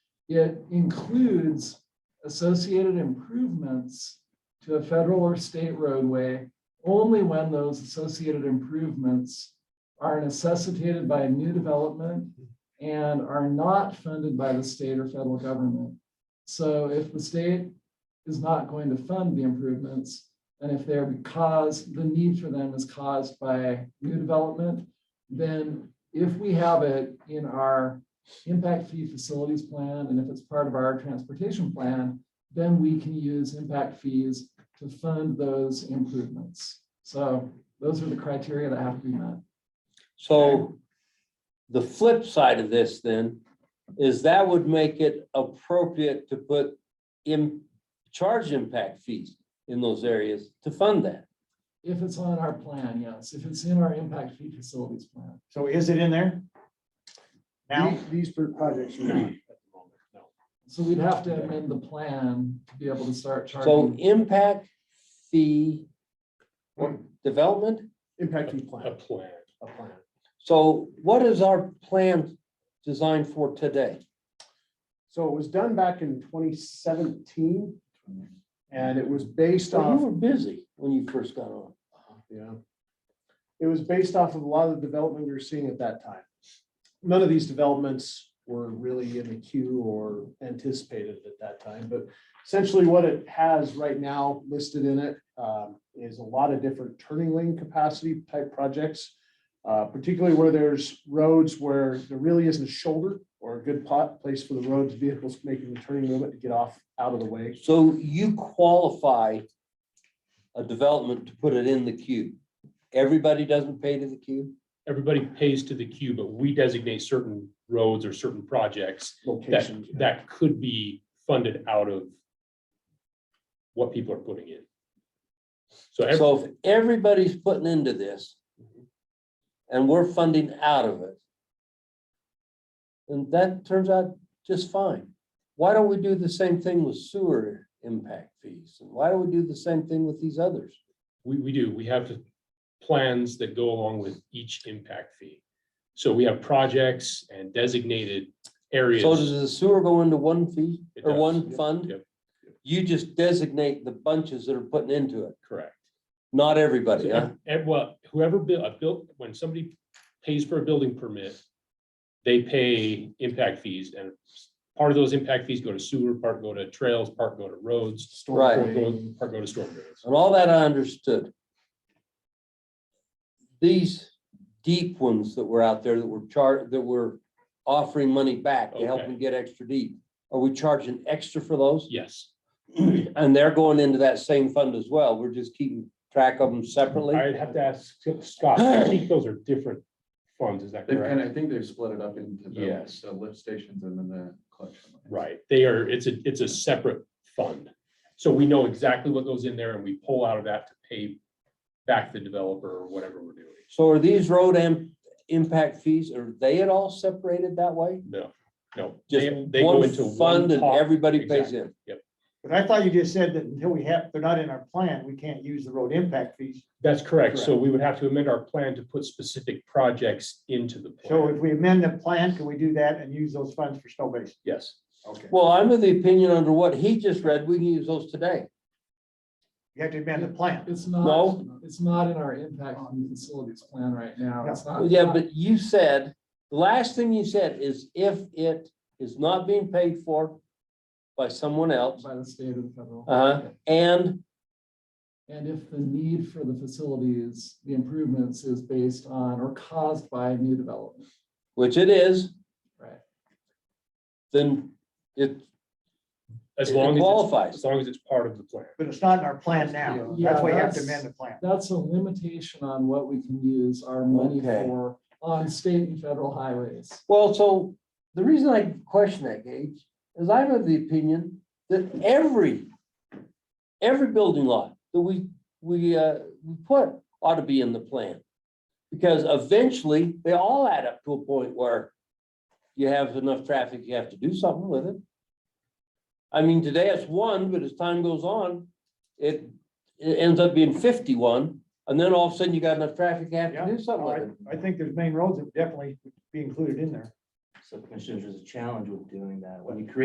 It includes associated improvements to a federal or state roadway only when those associated improvements are necessitated by new development and are not funded by the state or federal government. So if the state is not going to fund the improvements, and if they're because the need for them is caused by new development, then if we have it in our impact fee facilities plan, and if it's part of our transportation plan, then we can use impact fees to fund those improvements. So those are the criteria that have to be met. So the flip side of this then is that would make it appropriate to put in charge impact fees in those areas to fund that. If it's on our plan, yes. If it's in our impact fee facilities plan. So is it in there? Now, These- These pro- projects are not. at the moment, no. So we'd have to amend the plan to be able to start So charging. impact fee development. Impact fee A plan, plan. a plan. So what is our plan designed for today? So it was done back in twenty seventeen. And it was based So you off, were busy when you first got on. yeah. It was based off of a lot of the development we were seeing at that time. None of these developments were really in the queue or anticipated at that time, but essentially what it has right now listed in it um, is a lot of different turning lane capacity type projects. uh, particularly where there's roads where there really isn't a shoulder or a good pot place for the roads, vehicles making the turning movement to get off out of the way. So you qualify a development to put it in the queue. Everybody doesn't pay to the queue? Everybody pays to the queue, but we designate certain roads or certain projects that, Locations. that could be funded out of what people are putting in. So every- So if everybody's putting into this and we're funding out of it, then that turns out just fine. Why don't we do the same thing with sewer impact fees? And why don't we do the same thing with these others? we, we do, we have plans that go along with each impact fee. So we have projects and designated areas. So does the sewer go into one fee It or does. one Yep, fund? yep. You just designate the bunches that are putting into it, Correct. not everybody, huh? And what, whoever built, a built, when somebody pays for a building permit, they pay impact fees and part of those impact fees go to sewer, part go to trails, part go to roads, storm Right. part drain. go, part go to storm drains. And all that I understood. These deep ones that were out there that were char, that were offering money back to help Okay. them get extra deep. Are we charging extra for those? Yes, And they're going into that same fund as well. We're just keeping track of them separately. I'd have to ask Scott, I think those are different funds, is that They've kind correct? of, I think they've split it up into the- Yes. the lift stations and then the collection. lines. Right, they are, it's a, it's a separate fund. So we know exactly what goes in there and we pull out of that to pay back the developer or whatever we're doing. So are these road am, impact fees, are they at all separated that way? No, no. Just they- they go one into fund and pot. everybody pays Exactly. in. but I thought you just said that until we have, they're not in our plan, we can't use the road impact fees. That's correct. So we would have to amend our plan to put specific projects into the So if plan. we amend the plan, can we do that and use those funds for snow base? Yes, Okay, Well, I'm of the opinion under what he just read, we can use those today. you have to amend the plan. It's not, No. it's not in our impact fee facilities plan right now. It's not. Yeah, but you said, the last thing you said is if it is not being paid for by someone else, By the state or the federal. uh-huh, and, And if the need for the facilities, the improvements is based on or caused by new development, which it is, right? then it as It long as, qualifies. it's- as long as it's part of the plan. But it's not in our plan now. That's why you have to amend the plan. That's a limitation on what we can use our money Okay. for on state and federal highways. Well, so the reason I question that, Gage, is I'm of the opinion that every, every building lot that we, we, uh, we put ought to be in the plan. Because eventually, they all add up to a point where you have enough traffic, you have to do something with it. I mean, today it's one, but as time goes on, it, it ends up being fifty-one, and then all of a sudden you got enough traffic, you have Yeah, to do something no, with I it. I think there's main roads that definitely be included in there. So commissioners, there's a challenge with doing that. When you create